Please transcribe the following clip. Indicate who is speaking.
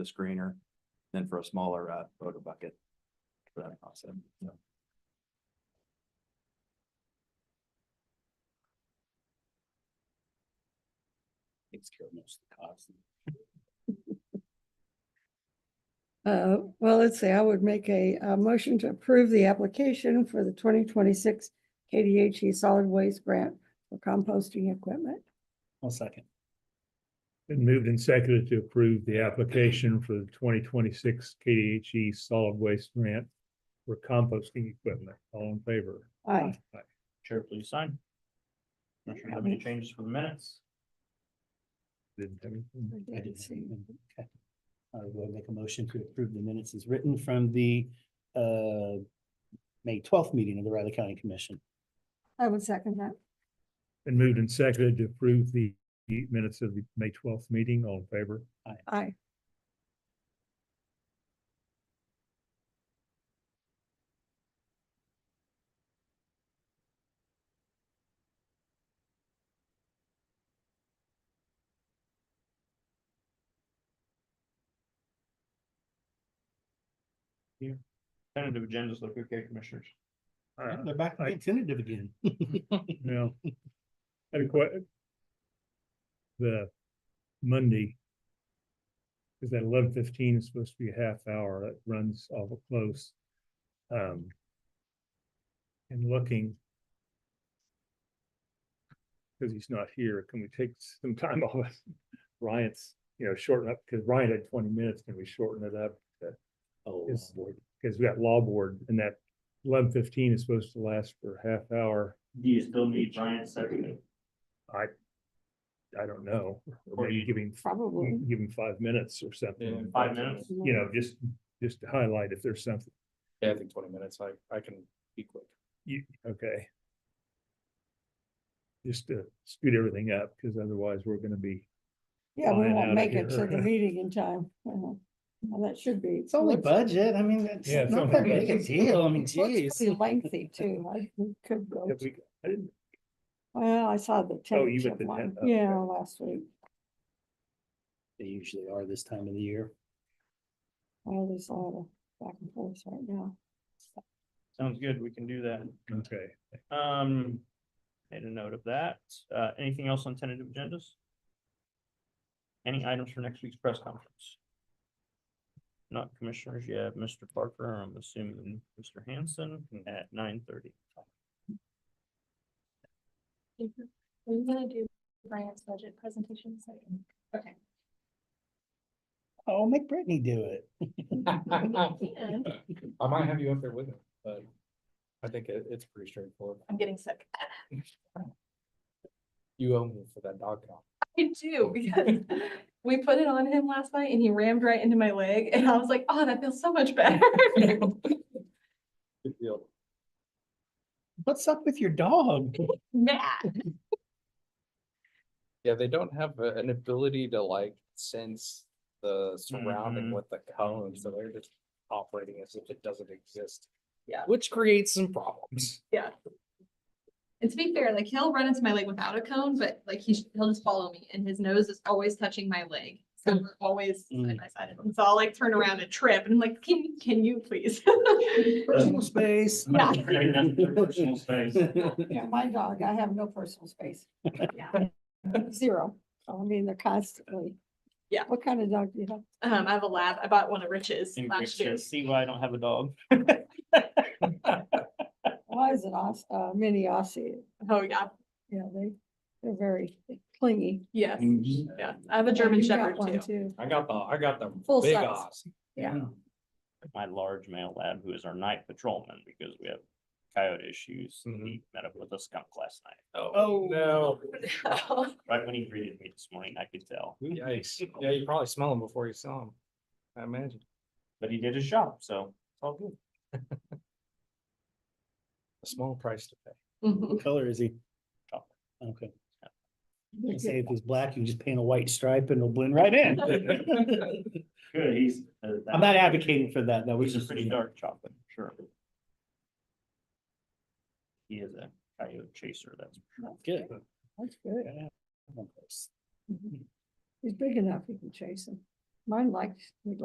Speaker 1: the screener than for a smaller uh photo bucket. For that concept, so. Takes care of most of the cost.
Speaker 2: Uh, well, let's see, I would make a, uh motion to approve the application for the twenty twenty-six KDHE E Solid Waste Grant for composting equipment.
Speaker 3: One second.
Speaker 4: Been moved and seconded to approve the application for the twenty twenty-six KDHE E solid waste grant for composting equipment. All in favor?
Speaker 2: Aye.
Speaker 3: Chair, please sign. Commissioner, have any changes for the minutes?
Speaker 4: Didn't have anything.
Speaker 2: I didn't see.
Speaker 3: Okay. Uh, I will make a motion to approve the minutes as written from the uh May twelfth meeting of the Riley County Commission.
Speaker 2: I would second that.
Speaker 4: Been moved and seconded to approve the the minutes of the May twelfth meeting. All in favor?
Speaker 2: Aye.
Speaker 3: Tentative agendas look okay, commissioners.
Speaker 4: Uh,
Speaker 3: They're back to
Speaker 4: I-
Speaker 3: being tentative again.
Speaker 4: Yeah. Had a que- The Monday. Is that eleven fifteen is supposed to be a half hour, that runs awful close. Um. And looking. Cause he's not here, can we take some time off? Ryan's, you know, shorten up, cause Ryan had twenty minutes, can we shorten it up?
Speaker 3: Oh,
Speaker 4: Is-
Speaker 3: Lord.
Speaker 4: Cause we got law board and that eleven fifteen is supposed to last for a half hour,
Speaker 5: Do you still need Ryan second?
Speaker 4: I don't know. Or
Speaker 5: Or
Speaker 4: maybe
Speaker 5: you-
Speaker 4: giving
Speaker 2: Probably.
Speaker 4: give them five minutes or something.
Speaker 5: Five minutes?
Speaker 4: You know, just, just to highlight if there's something,
Speaker 1: Yeah, I think twenty minutes, I I can be quick.
Speaker 4: you, okay. Just to scoot everything up, because otherwise we're gonna be,
Speaker 2: Yeah, we
Speaker 4: Flying
Speaker 2: won't
Speaker 4: outta
Speaker 2: make it to
Speaker 4: here.
Speaker 2: the meeting in time. Uh-huh. Well, that should be.
Speaker 3: It's only budget. I mean, it's
Speaker 4: Yeah, it's
Speaker 3: not
Speaker 4: only
Speaker 3: that big a
Speaker 4: budget.
Speaker 3: deal. I mean,
Speaker 2: Well, it's
Speaker 3: geez.
Speaker 2: pretty Lengthy too. I we could go.
Speaker 4: have we, I didn't,
Speaker 2: Well, I saw the
Speaker 4: Oh, you
Speaker 2: tentative
Speaker 4: went the
Speaker 2: one.
Speaker 4: tent- okay.
Speaker 2: Yeah, last week.
Speaker 3: They usually are this time of the year.
Speaker 2: Well, there's a lot of back and forth right now.
Speaker 6: Sounds good, we can do that.
Speaker 4: okay.
Speaker 6: Um, made a note of that. Uh, anything else on tentative agendas? Any items for next week's press conference? Not commissioners, you have Mr. Parker, I'm assuming Mr. Hanson at nine thirty.
Speaker 7: Mm-hmm. Are you gonna do Brian's budget presentation? second? Okay.
Speaker 3: Oh, make Brittany do it.
Speaker 1: I might have you up there with it, but I think it it's pretty straightforward.
Speaker 7: I'm getting sick.
Speaker 1: You owe me for that dog call.
Speaker 7: I do, because we put it on him last night and he rammed right into my leg and I was like, oh, that feels so much better.
Speaker 1: Good deal.
Speaker 3: What's up with your dog?
Speaker 7: Mad.
Speaker 5: Yeah, they don't have a- an ability to like sense the surrounding
Speaker 6: Mhm.
Speaker 5: with the cone, so they're just operating as if it doesn't exist.
Speaker 7: Yeah.
Speaker 5: Which creates some problems.
Speaker 7: And to be fair, like he'll run into my leg without a cone, but like he, he'll just follow me and his nose is always touching my leg. So we're always side
Speaker 3: Mm.
Speaker 7: by side of him. So I'll like turn around and trip and I'm like, can, can you please?
Speaker 3: Personal space.
Speaker 7: Yeah.
Speaker 6: Personal space.
Speaker 2: Yeah, my dog, I have no personal space.
Speaker 7: Yeah.
Speaker 2: Zero. So, I mean, they're constantly.
Speaker 7: Yeah.
Speaker 2: What kind of dog do you have?
Speaker 7: Um, I have a lab. I bought one of Rich's
Speaker 6: In
Speaker 7: last year.
Speaker 6: picture, see why I don't have a dog.
Speaker 2: Why is it Aus, uh, mini Aussie?
Speaker 7: Oh, yeah.
Speaker 2: Yeah, they, they're very clingy.
Speaker 7: Yes.
Speaker 1: Mm.
Speaker 7: Yeah. I have a German
Speaker 2: You got
Speaker 7: Shepherd
Speaker 2: one
Speaker 7: too.
Speaker 5: I got the, I got the
Speaker 2: Full
Speaker 5: big
Speaker 2: size.
Speaker 5: ass.
Speaker 2: Yeah.
Speaker 6: My large male lab, who is our night patrolman, because we have coyote issues, he met up with a skunk last night.
Speaker 5: Oh, no.
Speaker 7: Oh.
Speaker 6: Right when he greeted me this morning, I could tell,
Speaker 5: Yikes. Yeah, you probably smell them before you saw them. I imagine.
Speaker 6: but he did his job, so it's all good.
Speaker 5: A small price to pay.
Speaker 7: Mhm.
Speaker 3: What color is he? Oh,
Speaker 6: Chocolate.
Speaker 3: Okay.
Speaker 6: Yeah.
Speaker 3: I Say if he's black, you just paint a white stripe and it'll blend right in.
Speaker 6: Good, he's. uh, that-
Speaker 3: I'm not advocating for that, though.
Speaker 6: Which is pretty dark chocolate, sure. He is a coyote chaser, that's.
Speaker 3: Good.
Speaker 2: That's good. He's big enough, you can chase him. Mine liked, would